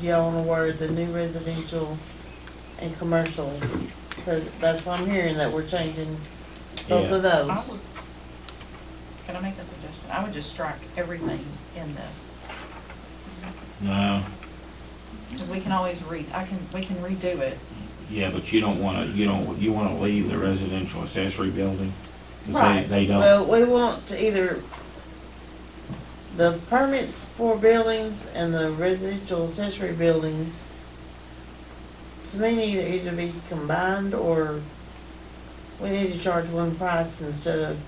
y'all wanna word the new residential and commercial? Cause that's what I'm hearing, that we're changing both of I those. would, can I make a suggestion? I would just strike everything in this, No, because we can always re, I can, we can redo it. yeah, but you don't wanna, you don't, you wanna leave the residential accessory building? 'cause Right. they, they don't, Well, we want to either, the permits for buildings and the residential accessory building, to me, need to either be combined or we need to charge one price instead of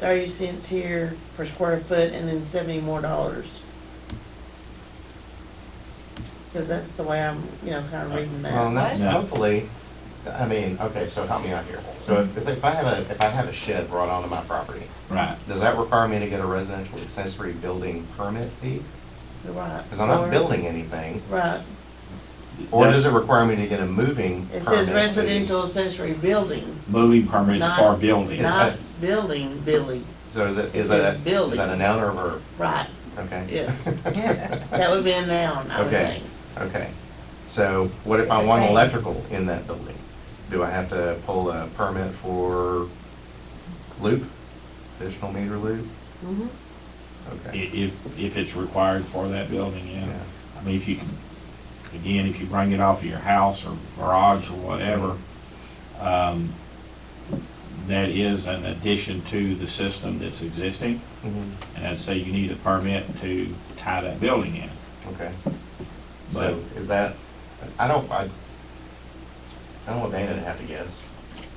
thirty cents here per square foot and then seventy more dollars. Cause that's the way I'm, you know, kinda reading Well, and that. that's What? hopefully, I mean, okay, so help me out here. So Mm-hmm. if, if I have a, if I have a shed brought onto my property, right, does that require me to get a residential accessory building permit fee? You're Right. Because I'm not Or- building anything. Right, Or does it That's- require me to get a moving permit? it says fee? residential accessory building. moving permits Not- for buildings. Not building, building, So is it, it is says that, a- building. is that a noun or a verb? right, Okay. yes. That would be a noun, I would Okay. think. Okay. So what if I It's a want thing. electrical in that building? Do I have to pull a permit for loop, additional meter loop? Mhm. I- Okay. If, if it's required for that building, yeah. Yeah. I mean, if you can, again, if you bring it off of your house or garage or whatever, um, that is an addition to the system that's existing. Mhm. And I'd say you need a permit to tie that building in. Okay. But- So is that, I don't, I, I don't want Dana to have to guess.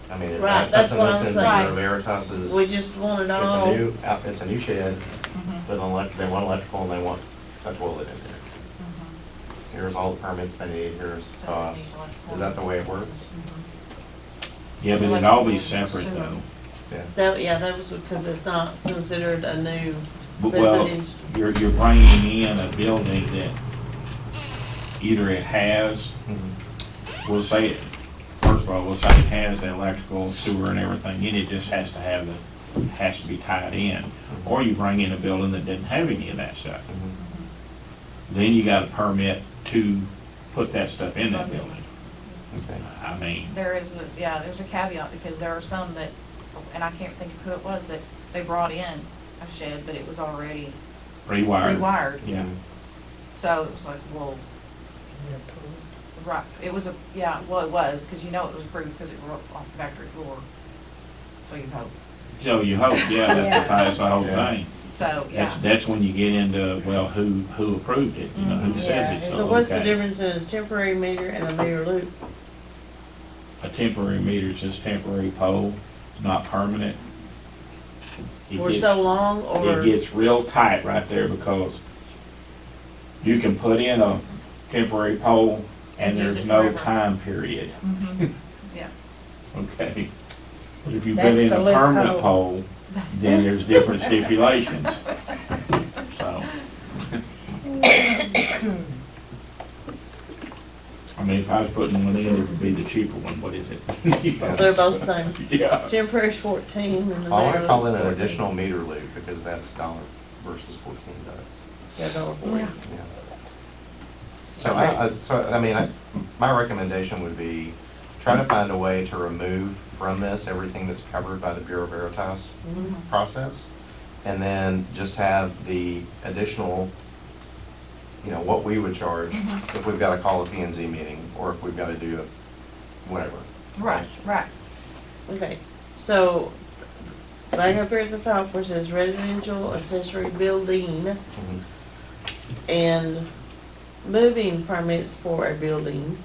I mean, is Right, that that's something what that's I'm saying. in Bureau Veritas's? We just want it It's a all, new, out- it's a new shed, Mm-hmm. with an elect, they want electrical and they want a toilet in there. Mm-hmm. Here's all the permits they need, here's the cost. Is that the way it works? Yeah, but it'd all be separate though. Mm-hmm. Yeah. that, yeah, that was because it's not considered a new But, Well, residential. you're, you're bringing in a building that either it has, Mhm. we'll say, it- first of all, we'll say it has the electrical, sewer and everything, and it just has to have the, has to be tied in. Or you bring in a building that doesn't have any of that stuff. Mhm. Then you got a permit to put that stuff in that building. Okay. I mean, There is, a yeah, there's a caveat, because there are some that, and I can't think of who it was, that they brought in a shed, but it was already rewired. rewired. Yeah. Mm-hmm. So it was like, well, right, it was a, yeah, well, it was, because you know it was approved, because it rolled off the factory floor. So you hope, So you hope, yeah, that's the, that's the whole Yeah. thing. so, yeah. That's, that's when you get into, well, who, who approved it, you know, who says it's Mm-hmm. So what's the okay. difference in a temporary meter and a meter loop? A temporary meter is just temporary pole, not permanent. It For gets- so long It or, gets real tight right there because you can put in a temporary pole and And use there's it no forever. time period, Mhm. Yeah. okay? But if you put That's in the a permanent loophole. pole, then there's different stipulations. So. I mean, if I was putting one in, it would be the cheaper one, what is it? they're both same. Yeah, Temporary's fourteen and the I want meter to call it loop's an fourteen. additional meter loop because that's dollar versus fourteen dollars. Yeah, dollar forty. Yeah. Yeah. So I, I- so, I mean, I, my recommendation would be try to find a way to remove from this everything that's covered by the Bureau Veritas Mhm. Mm-hmm. process. And then just have the additional, you know, what we would charge if we've got to call a P and Z meeting or if we've got to do a whatever. Right, right. Okay, so, right up here at the top where it says residential accessory building Mhm. and moving permits for a building,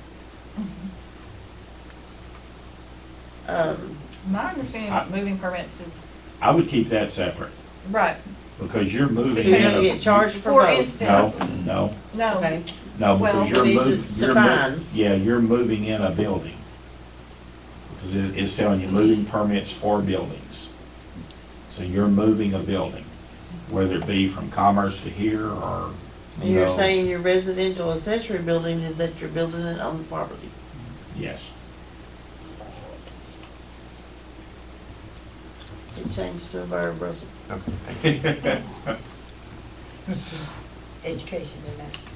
um, My understanding of moving permits is, I would keep that separate, right, because you're so moving. you're in gonna a- get charged for for oh. both. No, instance, no, no, Okay, no, Well, because you're we need moving, to you're mo- define. yeah, you're moving in a building. Because it, it's telling you moving permits for buildings. So you're moving a building, whether it be from commerce to here or, you you're know, saying your residential accessory building is that you're building it on the property. Yes, It changed to a verb, Russell. Okay. Education in that.